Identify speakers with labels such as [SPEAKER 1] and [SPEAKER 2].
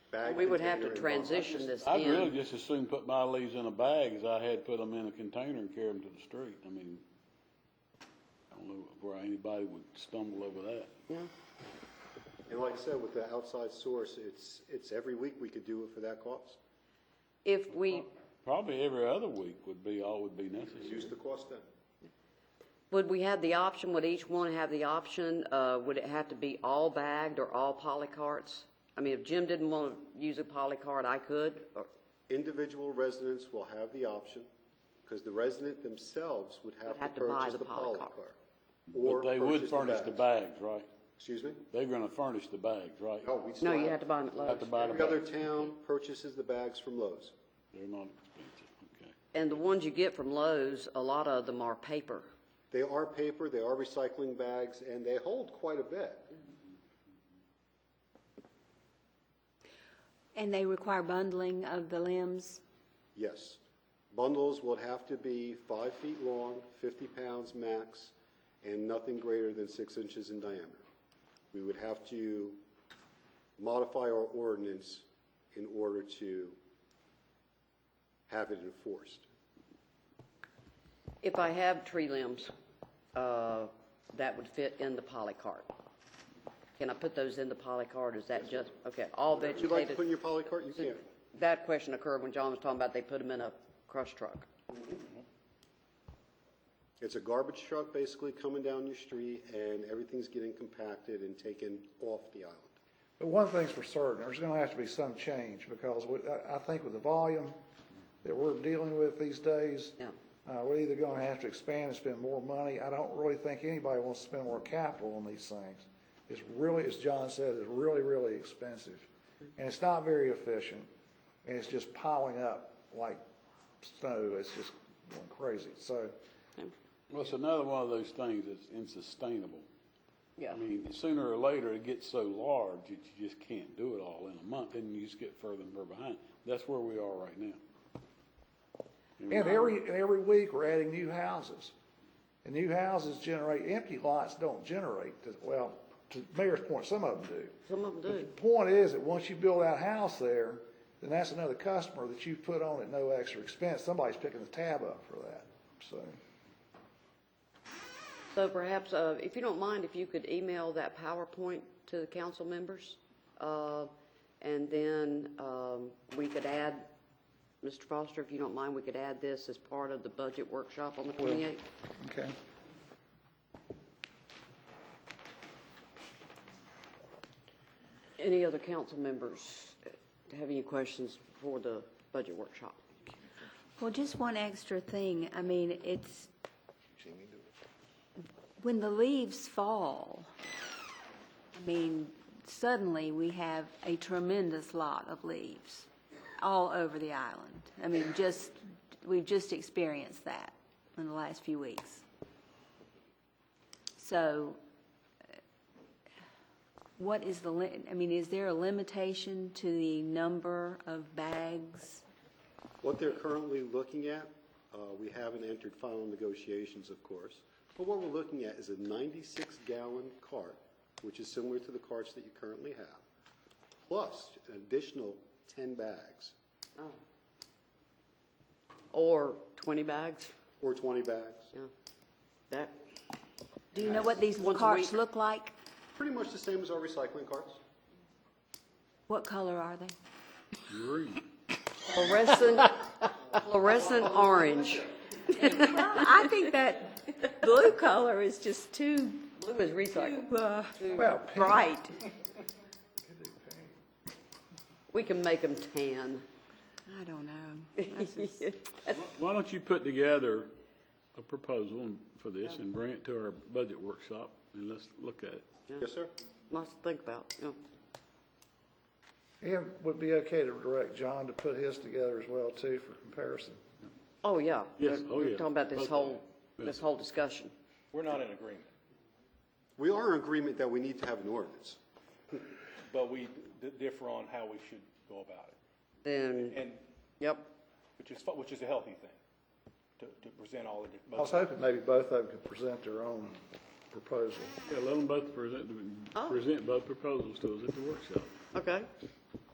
[SPEAKER 1] bag
[SPEAKER 2] We would have to
[SPEAKER 1] container and box.
[SPEAKER 2] transition this
[SPEAKER 3] I'd really
[SPEAKER 2] in.
[SPEAKER 3] just as soon put my leaves in a bag as I had put them in a container and carry them to the street. I mean, I don't know where anybody would stumble over that.
[SPEAKER 1] And like I said, with the outside source, it's, it's every week we could do it for that cost.
[SPEAKER 2] If we,
[SPEAKER 3] Probably every other week would be, all would be
[SPEAKER 1] Use
[SPEAKER 3] necessary.
[SPEAKER 1] the cost then.
[SPEAKER 2] would we have the option, would each one have the option, uh, would it have to be all bagged or all polycarts? I mean, if Jim didn't want to use a polycart, I could, or,
[SPEAKER 1] Individual residents will have the option, because the resident themselves would have
[SPEAKER 2] have
[SPEAKER 1] to
[SPEAKER 2] to buy
[SPEAKER 1] purchase
[SPEAKER 2] the
[SPEAKER 1] the
[SPEAKER 2] polycart.
[SPEAKER 1] polycar.
[SPEAKER 3] But they would furnish the
[SPEAKER 1] bag.
[SPEAKER 3] bags, right?
[SPEAKER 1] Excuse me?
[SPEAKER 3] They're gonna furnish the bags, right?
[SPEAKER 1] No, we still
[SPEAKER 2] no,
[SPEAKER 1] have.
[SPEAKER 2] you have to buy them at
[SPEAKER 3] Have to
[SPEAKER 2] Lowe's.
[SPEAKER 3] buy the
[SPEAKER 1] Oh, Every other
[SPEAKER 3] bags.
[SPEAKER 1] town purchases the bags from Lowe's.
[SPEAKER 3] They're not expensive, okay.
[SPEAKER 2] And the ones you get from Lowe's, a lot of them are paper.
[SPEAKER 1] They are paper, they are recycling bags, and they hold quite a bit.
[SPEAKER 4] And they require bundling of the limbs?
[SPEAKER 1] Yes. Bundles would have to be five feet long, 50 pounds max, and nothing greater than six inches in diameter. We would have to modify our ordinance in order to have it enforced.
[SPEAKER 2] If I have tree limbs, uh, that would fit in the polycart. Can I put those in the polycart, is that just, okay, all
[SPEAKER 1] Would you like to put in
[SPEAKER 2] vegetated?
[SPEAKER 1] your polycart? You can.
[SPEAKER 2] That question occurred when John was talking about they put them in a crush truck.
[SPEAKER 1] It's a garbage truck basically coming down your street, and everything's getting compacted and taken off the island.
[SPEAKER 5] But one thing's for certain, there's gonna have to be some change, because we, I, I think with the volume that we're dealing with these days,
[SPEAKER 2] Yeah.
[SPEAKER 5] uh, we're either gonna have to expand and spend more money, I don't really think anybody wants to spend more capital on these things. It's really, as John said, it's really, really expensive, and it's not very efficient, and it's just piling up like snow, it's just going crazy, so,
[SPEAKER 3] Well, it's another one of those things that's insustainable.
[SPEAKER 2] Yeah.
[SPEAKER 3] I mean, sooner or later, it gets so large that you just can't do it all in a month, and you just get further and further behind. That's where we are right now.
[SPEAKER 5] And every, and every week, we're adding new houses. And new houses generate, empty lots don't generate, to- well, to Mayor's point, some of them do.
[SPEAKER 2] Some of them do.
[SPEAKER 5] The point is that once you build that house there, then that's another customer that you put on at no extra expense. Somebody's picking the tab up for that, so.
[SPEAKER 2] So perhaps, uh, if you don't mind, if you could email that PowerPoint to the council members, uh, and then um, we could add, Mr. Foster, if you don't mind, we could add this as part of the budget workshop on the 28th.
[SPEAKER 5] Okay.
[SPEAKER 2] Any other council members have any questions for the budget workshop?
[SPEAKER 4] Well, just one extra thing. I mean, it's, when the leaves fall, I mean, suddenly we have a tremendous lot of leaves all over the island. I mean, just, we've just experienced that in the last few weeks. So uh, what is the, li- I mean, is there a limitation to the number of bags?
[SPEAKER 1] What they're currently looking at, uh, we haven't entered final negotiations, of course, but what we're looking at is a 96-gallon cart, which is similar to the carts that you currently have, plus an additional 10 bags,
[SPEAKER 2] Or 20 bags?
[SPEAKER 1] or 20 bags.
[SPEAKER 2] Yeah. That,
[SPEAKER 4] Do you know what these
[SPEAKER 2] Once a
[SPEAKER 4] carts
[SPEAKER 2] week.
[SPEAKER 4] look like?
[SPEAKER 1] Pretty much the same as our recycling carts.
[SPEAKER 4] What color are they?
[SPEAKER 2] fluorescent, fluorescent orange.
[SPEAKER 4] I think that blue color is just too,
[SPEAKER 2] Blue is recycled.
[SPEAKER 4] uh,
[SPEAKER 5] Well,
[SPEAKER 4] bright.
[SPEAKER 2] We can make them tan.
[SPEAKER 4] I don't know. That's just-
[SPEAKER 3] Why don't you put together a proposal for this and bring it to our budget workshop, and let's look at it.
[SPEAKER 1] Yes, sir?
[SPEAKER 2] Lots to think about, you know.
[SPEAKER 5] it would be okay to direct John to put his together as well, too, for comparison.
[SPEAKER 2] Oh, yeah.
[SPEAKER 3] Yes,
[SPEAKER 2] We're-
[SPEAKER 3] oh,
[SPEAKER 2] we're
[SPEAKER 3] yeah.
[SPEAKER 2] Talking about this
[SPEAKER 3] Both
[SPEAKER 2] whole,
[SPEAKER 3] yeah.
[SPEAKER 2] this whole discussion.
[SPEAKER 6] We're not in agreement,
[SPEAKER 1] We are in agreement that we need to have an ordinance.
[SPEAKER 6] but we d- differ on how we should go about it.
[SPEAKER 2] Then,
[SPEAKER 6] And,
[SPEAKER 2] yep,
[SPEAKER 6] which is, fu- which is a healthy thing, to, to present all the
[SPEAKER 5] I was
[SPEAKER 6] different.
[SPEAKER 5] hoping maybe both of them could present their own proposal.
[SPEAKER 3] Yeah, let them both present, present both proposals to us at the workshop.
[SPEAKER 2] okay.